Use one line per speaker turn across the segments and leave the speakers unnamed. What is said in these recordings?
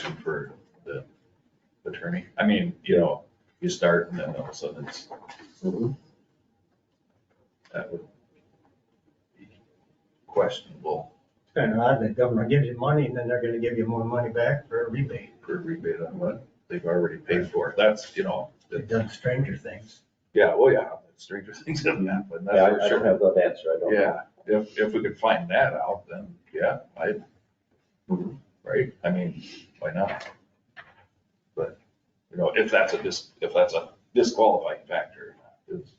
question for the attorney? I mean, you know, you start and then all of a sudden it's, Mm-hmm. that would be questionable
Kind of odd, the government gives you money and then they're gonna give you more money back for a rebate.
for rebate on what they've already paid for. That's, you know,
It does stranger things.
yeah, well, yeah, stranger things have happened, that's
Yeah, I-
for
I don't
sure.
have that answer, I don't. know.
Yeah, if, if we could find that out, then, yeah, I, right, I mean, why not? But, you know, if that's a dis, if that's a disqualifying factor, is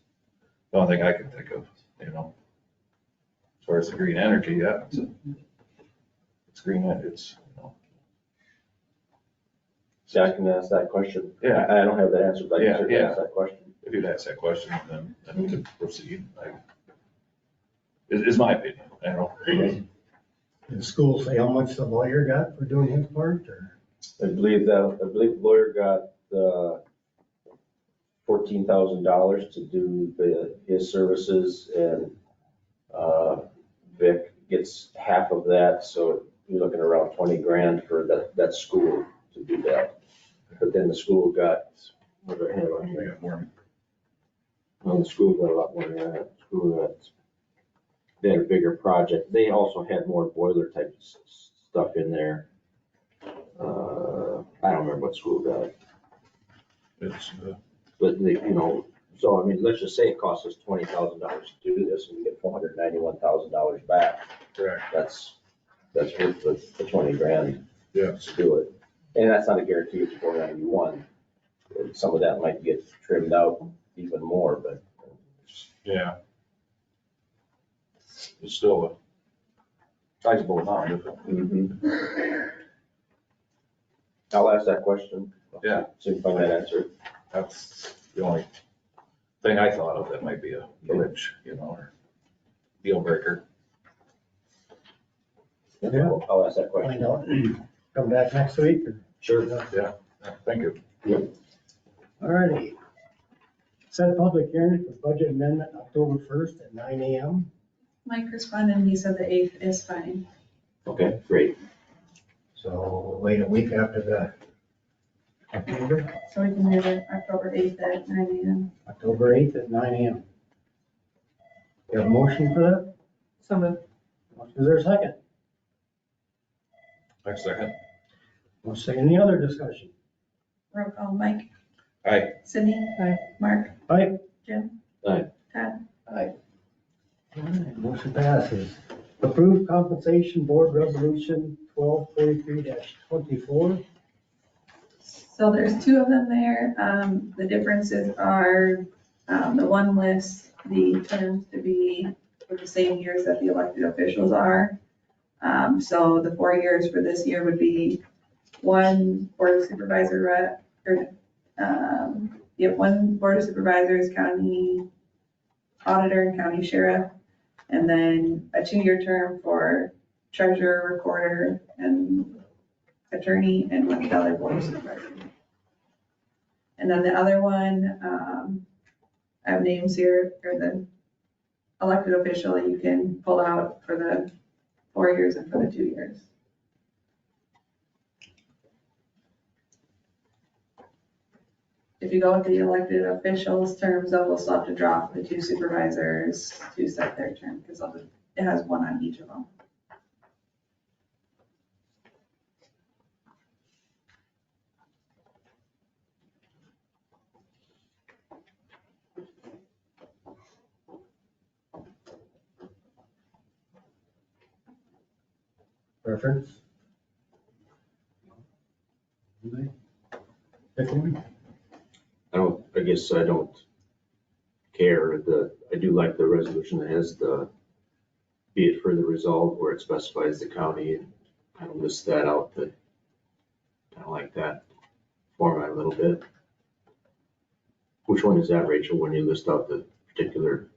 the only thing I can think of, you know. As far as the green energy, yeah, it's, a- it's green, en- it's, you know,
See, I can ask that question.
Yeah.
I I don't have that answer, but I
Yeah,
can certainly
yeah.
ask that question.
if you'd ask that question, then, then we could proceed, I, is, is my opinion, I don't.
Did the school say how much the lawyer got for doing his part or?
I believe that, I believe lawyer got, uh, fourteen thousand dollars to do the, his services and, uh, Vic gets half of that, so you're looking around twenty grand for that, that school to do that. But then the school got, what do I have on
We
here?
got more,
Well, the school got a lot more, than that. school got, they had a bigger project, they also had more boiler type s- s- stuff in there. Uh, I don't remember what school got it,
it's, uh,
but they, you know, so I mean, let's just say it costs us twenty thousand dollars to do this, and we get four hundred ninety-one thousand dollars back,
correct,
that's, that's worth the, the twenty grand
yeah.
to do it. And that's not a guarantee it's four ninety-one, some of that might get trimmed out even more, but
Yeah. It's still a sizable amount, isn't it?
I'll ask that question.
Yeah.
See if I can answer. it.
that's the only thing I thought of that might be a glitch, you know, or deal breaker.
Yeah.
I'll- I'll ask that question.
Find out, come back next week.
Sure.
Thank you.
Alrighty. Set public hearing for budget amendment October first at nine AM.
Mike responded, and he said the eighth is fine.
Okay, great.
So we'll wait a week after the October,
So we can do it October eighth at nine AM.
October eighth at nine AM. You have a motion for that?
So moved.
Is there a second?
Next second.
Well, say any other discussion?
Roll call, Mike.
Aye.
Sydney. Mark.
Aye.
Jim.
Aye.
Todd.
Alright, Motion passes. Approved compensation board resolution twelve forty-three twenty-four.
So there's two of them there. Um, the differences are, um, the one lists the terms to be for the same years that the elected officials are. Um, so the four years for this year would be one board of supervisor rep, or, um, you have one board of supervisors, county auditor and county sheriff. And then a two-year term for treasurer, recorder, and attorney and one other board supervisor. And then the other one, um, I have names here, or the elected official that you can pull out for the four years and for the two years. If you go with the elected officials terms, though, we'll still have to drop the two supervisors to set their term, because it has one on each of them.
Preference? Anybody? Pick one.
I don't, I guess I don't care. The, I do like the resolution that has the, be it further resolved where it specifies the county and kind of lists that out, but I don't like that format a little bit. Which one is that, Rachel, when you list out the particular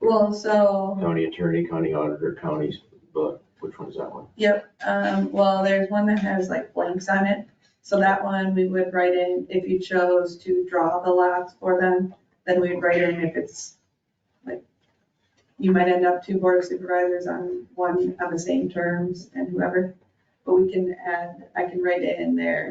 Well, so.
county attorney, county auditor, counties, but which one is that one?
Yep, um, well, there's one that has like blanks on it, so that one we would write in, if you chose to draw the lots for them, then we'd write in if it's like, you might end up two board of supervisors on one, on the same terms and whoever. but we can add, I can write it in there